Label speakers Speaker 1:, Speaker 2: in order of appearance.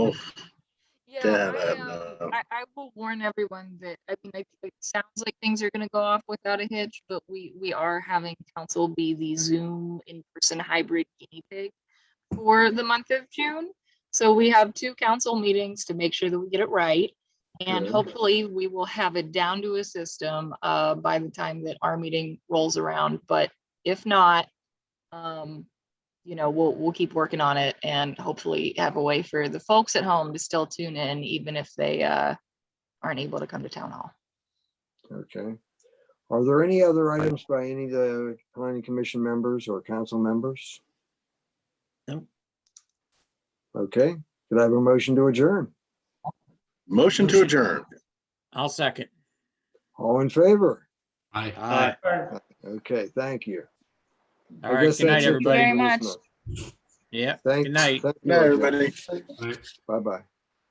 Speaker 1: Oof.
Speaker 2: Yeah,
Speaker 1: Damn,
Speaker 2: I,
Speaker 1: I don't
Speaker 2: um,
Speaker 1: know.
Speaker 2: I, I will warn everyone that, I mean, it, it sounds like things are gonna go off without a hitch, but we, we are having council be the Zoom in-person hybrid guinea pig for the month of June. So we have two council meetings to make sure that we get it right. And
Speaker 1: Yeah.
Speaker 2: hopefully we will have it down to a system, uh, by the time that our meeting rolls around, but if not, um, you know, we'll, we'll keep working on it and hopefully have a way for the folks at home to still tune in, even if they, uh, aren't able to come to town hall.
Speaker 3: Okay. Are there any other items by any of the planning commission members or council members?
Speaker 1: No.
Speaker 3: Okay, could I have a motion to adjourn?
Speaker 1: Motion to
Speaker 4: Motion.
Speaker 1: adjourn.
Speaker 4: I'll second.
Speaker 3: All in favor?
Speaker 5: Aye.
Speaker 4: All
Speaker 3: Okay, thank you. I
Speaker 4: right,
Speaker 3: guess
Speaker 4: good night,
Speaker 3: that's it for
Speaker 4: everybody.
Speaker 2: Very much.
Speaker 3: this month.
Speaker 4: Yeah,
Speaker 3: Thank.
Speaker 4: Good night.
Speaker 3: thank you,
Speaker 1: Night, everybody.
Speaker 3: Bye-bye.